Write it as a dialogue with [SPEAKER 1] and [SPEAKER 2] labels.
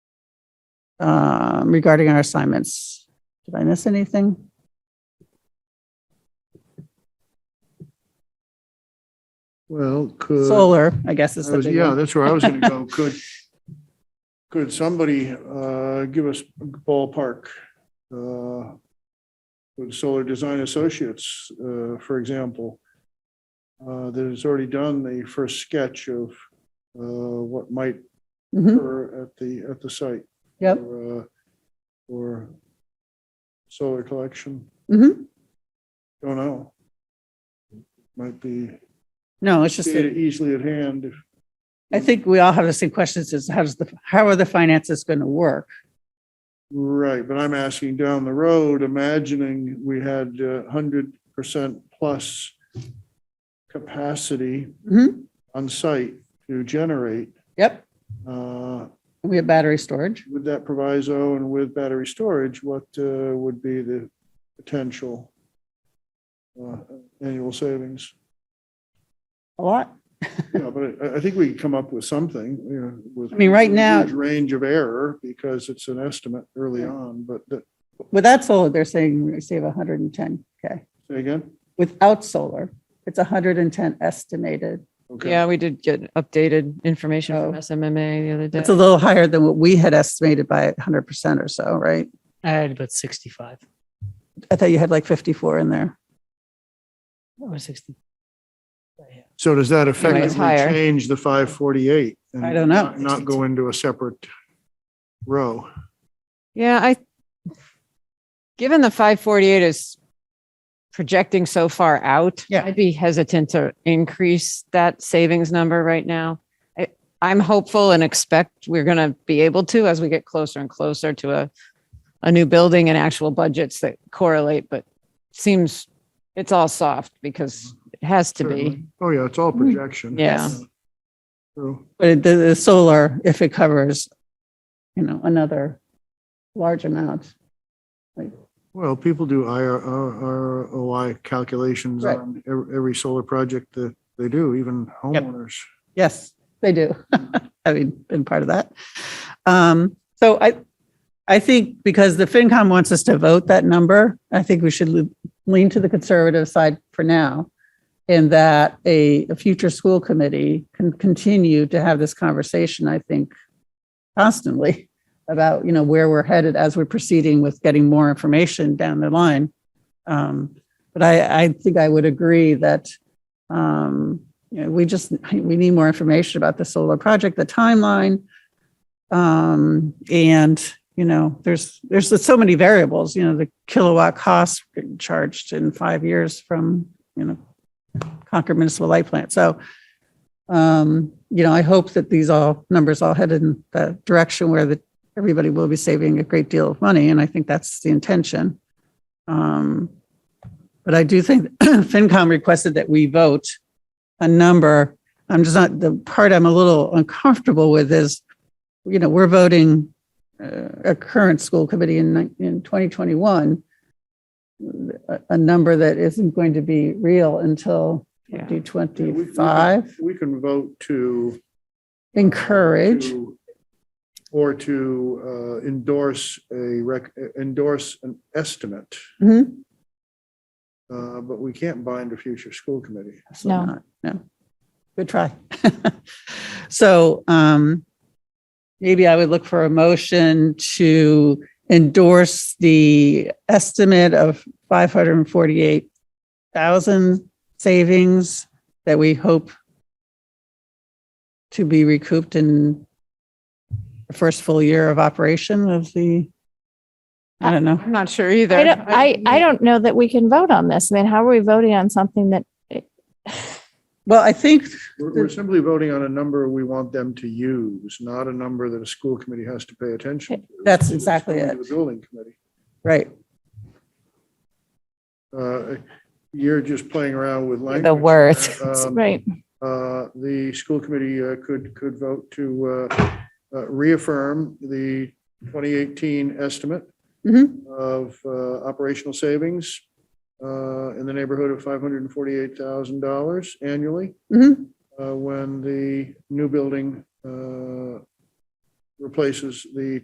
[SPEAKER 1] um, regarding our assignments. Did I miss anything?
[SPEAKER 2] Well, could.
[SPEAKER 1] Solar, I guess is
[SPEAKER 2] I
[SPEAKER 1] the
[SPEAKER 2] Uh, was-
[SPEAKER 1] big
[SPEAKER 2] Yeah,
[SPEAKER 1] one.
[SPEAKER 2] that's where I was going to go. Could, could somebody uh, give us ballpark? uh, With Solar Design Associates, uh, for example, uh, that has already done the first sketch of uh, what might
[SPEAKER 1] Mhm,
[SPEAKER 2] occur at the, at the site.
[SPEAKER 1] Yep.
[SPEAKER 2] for, uh, For solar collection.
[SPEAKER 1] mhm.
[SPEAKER 2] Don't know. Might be
[SPEAKER 1] No, it's just, that-
[SPEAKER 2] data easily at hand if
[SPEAKER 1] I think we all have the same questions is how does the, how are the finances going to work?
[SPEAKER 2] Right, but I'm asking down the road, imagining we had uh, hundred percent plus capacity
[SPEAKER 1] Mhm,
[SPEAKER 2] on site to generate,
[SPEAKER 1] Yep,
[SPEAKER 2] uh,
[SPEAKER 1] we have battery storage.
[SPEAKER 2] with that proviso and with battery storage, what uh, would be the potential uh, annual savings?
[SPEAKER 1] A lot.
[SPEAKER 2] Yeah, but I, I think we can come up with something, you know, with.
[SPEAKER 1] I mean, right
[SPEAKER 2] a
[SPEAKER 1] now-
[SPEAKER 2] huge Range of error because it's an estimate early on, but that,
[SPEAKER 1] Without solar, they're saying we save 110K.
[SPEAKER 2] say again?
[SPEAKER 1] Without solar, it's 110 estimated.
[SPEAKER 2] Okay.
[SPEAKER 3] Yeah, we did get updated information
[SPEAKER 1] Oh.
[SPEAKER 3] from SMMA the other day.
[SPEAKER 1] It's a little higher than what we had estimated by 100% or so, right?
[SPEAKER 4] I had about 65
[SPEAKER 1] I thought you had like 54 in there.
[SPEAKER 4] or 60. Yeah.
[SPEAKER 2] So does that
[SPEAKER 3] Anyway, it's
[SPEAKER 2] effectively
[SPEAKER 3] higher.
[SPEAKER 2] change the five forty-eight?
[SPEAKER 1] I don't know.
[SPEAKER 2] Not go into a separate row?
[SPEAKER 3] Yeah, I, given the 548 is projecting so far out,
[SPEAKER 1] Yeah.
[SPEAKER 3] I'd be hesitant to increase that savings number right now. I, I'm hopeful and expect we're going to be able to as we get closer and closer to a, a new building and actual budgets that correlate, but seems it's all soft because it has to be. Hmm.
[SPEAKER 2] Certainly. Oh, yeah, it's all projection.
[SPEAKER 3] Yeah.
[SPEAKER 2] True.
[SPEAKER 1] But it- the, the solar, if it covers, you know, another large amount.
[SPEAKER 2] Well, people do IR, ROI calculations
[SPEAKER 1] Right.
[SPEAKER 2] on every, every solar project that they do, even homeowners.
[SPEAKER 1] Yes, they do. Having been part of that. Um, so I, I think because the FinCom wants us to vote that number, I think we should le- lean to the conservative side for now. And that a, a future school committee can continue to have this conversation, I think, constantly about, you know, where we're headed as we're proceeding with getting more information down the line. Um, but I, I think I would agree that, um, you know, we just, we need more information about the solar project, the timeline. Um, and, you know, there's, there's so many variables, you know, the kilowatt cost charged in five years from, you know, Concord Municipal Light Plant. So, um, you know, I hope that these all numbers all headed in the direction where the, everybody will be saving a great deal of money. And I think that's the intention. Um, but I do think FinCom requested that we vote a number. I'm just not, the part I'm a little uncomfortable with is, you know, we're voting uh, a current school committee in, nine- in 2021, a, a number that isn't going to be real until
[SPEAKER 3] Yeah.
[SPEAKER 1] 2025.
[SPEAKER 2] We can vote to.
[SPEAKER 1] Encourage,
[SPEAKER 2] to- Or to uh, endorse a rec, endorse an estimate,
[SPEAKER 3] Mm-hmm.
[SPEAKER 1] Mhm.
[SPEAKER 2] uh, but we can't bind a future school committee.
[SPEAKER 1] Absolutely not. No. Good try. So um, maybe I would look for a motion to endorse the estimate of 548,000 savings that we hope to be recouped in the first full year of operation of the, I don't know.
[SPEAKER 3] I'm not sure either.
[SPEAKER 5] I don't, I, I don't know that we can vote on this. I mean, how are we voting on something that,
[SPEAKER 1] Well, I think
[SPEAKER 2] We're, we're simply voting on a number we want them to use, not a number that a school committee has to pay attention to.
[SPEAKER 1] That's
[SPEAKER 2] It's
[SPEAKER 1] exactly
[SPEAKER 2] going to
[SPEAKER 1] it.
[SPEAKER 2] The building committee.
[SPEAKER 1] Right.
[SPEAKER 2] Uh, You're just playing around with language.
[SPEAKER 5] the worth,
[SPEAKER 2] Um,
[SPEAKER 5] right?
[SPEAKER 2] uh, The school committee uh, could, could vote to uh, uh, reaffirm the 2018 estimate
[SPEAKER 1] Mhm.
[SPEAKER 2] of uh, operational savings uh, in the neighborhood of $548,000 annually.
[SPEAKER 1] Mhm.
[SPEAKER 2] uh, when the new building uh, replaces the